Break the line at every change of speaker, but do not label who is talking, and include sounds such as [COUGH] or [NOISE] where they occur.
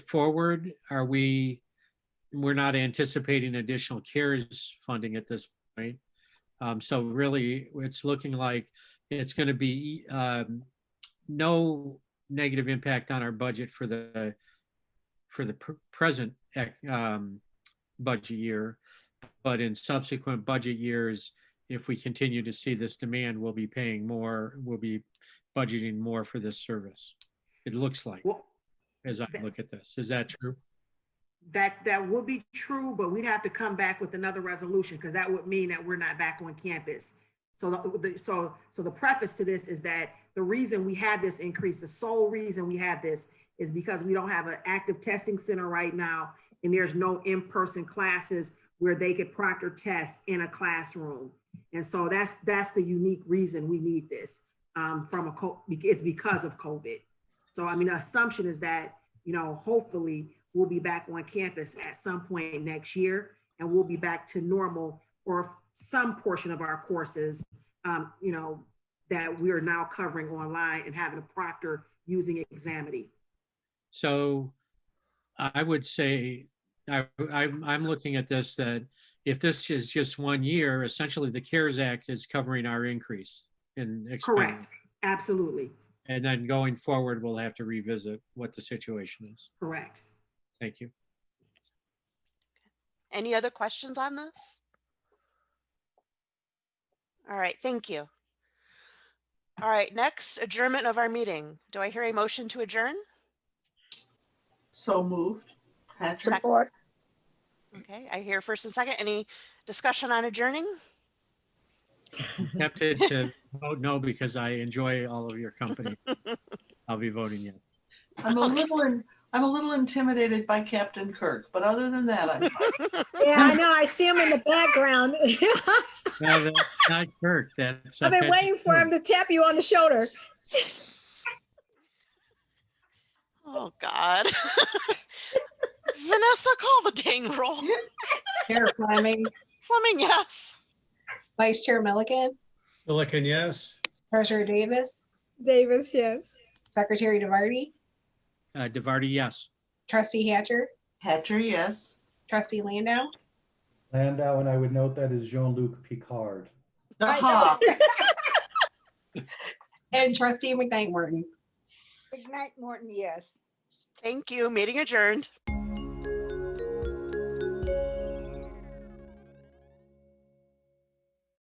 forward? Are we, we're not anticipating additional CARES funding at this point. Um, So really, it's looking like it's going to be um, no negative impact on our budget for the, for the pr- present ec- um, budget year. But in subsequent budget years, if we continue to see this demand, we'll be paying more, we'll be budgeting more for this service. It looks like,
Well,
as I look at this. Is that true?
that, that would be true, but we'd have to come back with another resolution because that would mean that we're not back on campus. So the, the- so, so the preface to this is that the reason we had this increase, the sole reason we had this is because we don't have an active testing center right now and there's no in-person classes where they could proctor tests in a classroom. And so that's, that's the unique reason we need this um, from a, co- it's because of COVID. So I mean, the assumption is that you know, hopefully we'll be back on campus at some point next year and we'll be back to normal or some portion of our courses, um, you know, that we are now covering online and having a proctor using Examity.
So I would say, I, I'm, I'm looking at this that if this is just one year, essentially the CARES Act is covering our increase in expense.
Correct. Absolutely.
And then going forward, we'll have to revisit what the situation is.
Correct.
Thank
[LAUGHS]
you.
Any other questions on this? All right, thank you. All right, next adjournment of our meeting. Do I hear a motion to adjourn?
So moved. Patrick?
Support.
Okay, I hear first and second. Any discussion on adjourning?
Tempted to vote no because I enjoy all of your
[LAUGHS]
company. I'll be voting yes.
I'm a little, in- I'm a little intimidated by Captain Kirk, but other than that, I'm, fine.
Yeah, I know. I see him in the background. [LAUGHS]
No, that's not Kirk, that's. uh,
I've been
Patrick
waiting for him
Stewart.
to tap you on the shoulder.
Oh, God. [LAUGHS] Vanessa, call the dang roll.
Chair Fleming,
Fleming, yes.
Vice Chair Milliken,
Milliken, yes.
Treasurer Davis,
Davis, yes.
Secretary DeVarty,
Uh, DeVarty, yes.
Trustee Hatcher,
Hatcher, yes.
Trustee Landau.
Landau, and I would note that is Jean-Luc Picard.
I know.
Aha.
[LAUGHS] And Trustee McKnight Morton.
Ignite Morton, yes.
Thank you. Meeting adjourned.